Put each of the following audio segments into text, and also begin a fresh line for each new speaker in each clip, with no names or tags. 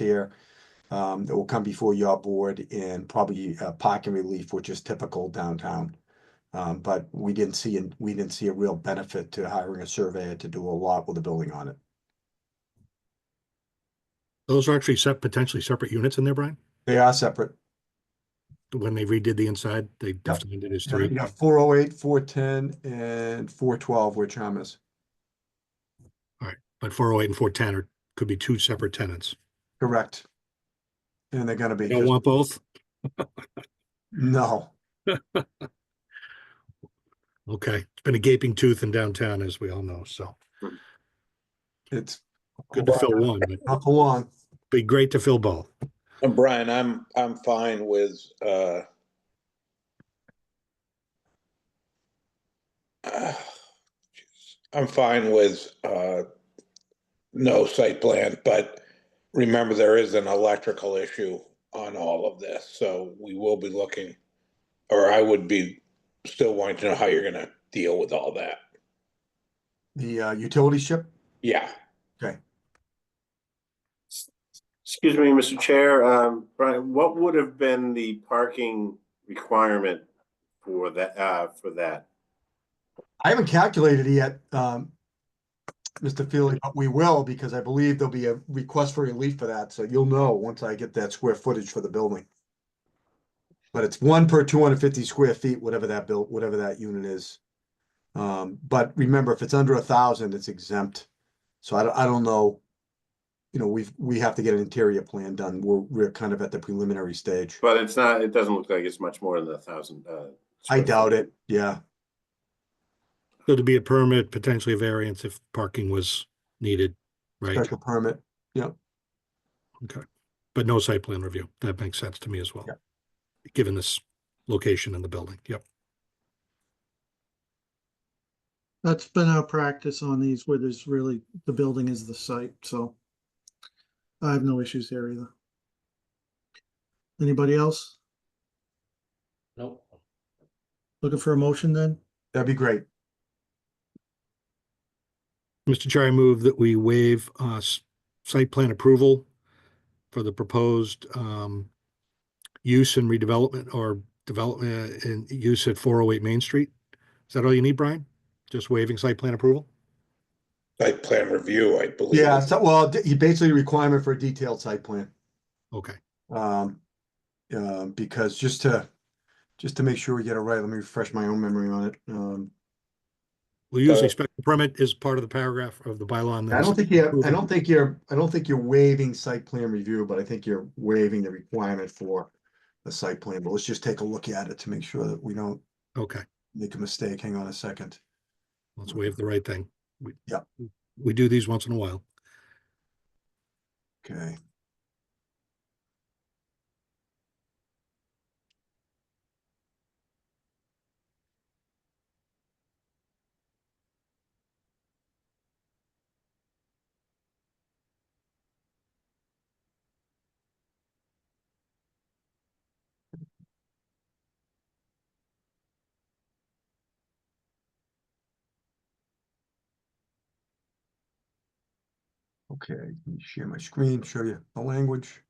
here um, that will come before your board and probably uh, parking relief, which is typical downtown. Um, but we didn't see, an- we didn't see a real benefit to hiring a surveyor to do a lot with a building on it.
Those are actually set, potentially separate units in there, Brian?
They are separate.
When they redid the inside, they defined it as
You
three.
got four oh eight, four ten, and four twelve, which I'm is.
But four oh eight and four ten are, could be two separate tenants.
Correct. And they're gonna be,
You don't want both?
no,
Okay, it's been a gaping tooth in downtown, as we all know, so
it's.
good to fill one, but
Not for long.
be great to fill both.
And Brian, I'm, I'm fine with, uh, I'm fine with, uh, no site plan, but remember there is an electrical issue on all of this, so we will be looking, or I would be still wanting to know how you're gonna deal with all that.
The uh, utility ship,
Yeah,
Excuse me, Mr. Chair, um, Brian, what would have been the parking requirement for that, uh, for that?
I haven't calculated it yet, um, Mr. Feely, but we will because I believe there'll be a request for relief for that. So you'll know once I get that square footage for the building. But it's one per two hundred fifty square feet, whatever that built, whatever that unit is. Um, but remember, if it's under a thousand, it's exempt. So I don't, I don't know. You know, we've, we have to get an interior plan done. We're, we're kind of at the preliminary stage.
But it's not, it doesn't look like it's much more than a thousand,
I
uh. square
doubt
feet.
it. Yeah,
So to be a permit, potentially a variance if parking was needed, right?
special permit.
But no site plan review. That makes sense to me as well.
Yeah.
Given this location in the building, yep.
That's been our practice on these where there's really, the building is the site, so I have no issues there either. Anybody else?
Nope.
Looking for a motion then?
That'd be great.
Mr. Chair, I move that we waive uh s- site plan approval for the proposed um use and redevelopment or development and use at four oh eight Main Street. Is that all you need, Brian? Just waiving site plan approval?
site plan review, I believe.
Yeah, so, well, d- you basically requirement for a detailed site plan,
Okay,
um, uh, because just to, just to make sure we get it right, let me refresh my own memory on it. Um,
well, usually
Uh,
special permit is part of the paragraph of the bylaw. and
I
that's-
don't think you, I don't think you're, I don't think you're waiving site plan review, but I think you're waiving the requirement for the site plan, but let's just take a look at it to make sure that we don't
Okay,
make a mistake. Hang on a second.
let's waive the right thing. We-
Yeah.
We do these once in a while.
Okay. Okay, let me share my screen, show you the language.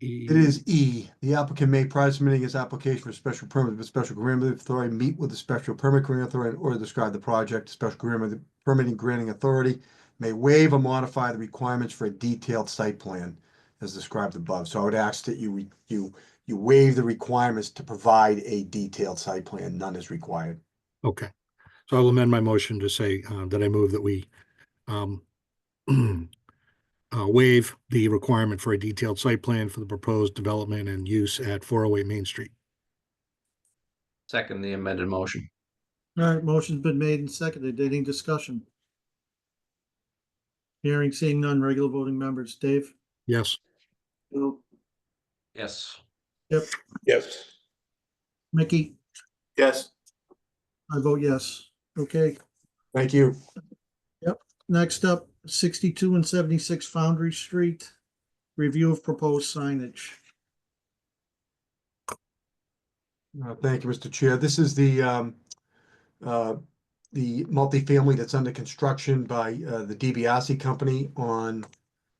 It is E, the applicant may prior to submitting his application for special permit with special permitting authority, meet with the special permit granting authority or describe the project, special permit- permitting granting authority may waive or modify the requirements for a detailed site plan as described above. So I would ask that you, re- you, you waive the requirements to provide a detailed site plan. None is required.
Okay, so I'll amend my motion to say uh, that I move that we um, uh, waive the requirement for a detailed site plan for the proposed development and use at 408 Main Street.
Second the amended motion.
All right, motion's been made and seconded. Any discussion? Hearing, seeing none, regular voting members. Dave?
Yes,
Bill.
Yes.
Yes,
Mickey?
Yes,
I vote yes. Okay,
Thank you.
next up, sixty-two and seventy-six Foundry Street. Review of proposed signage.
Uh, Thank you, Mr. Chair. This is the, um, uh, the multifamily that's under construction by, uh, the DiBiase Company on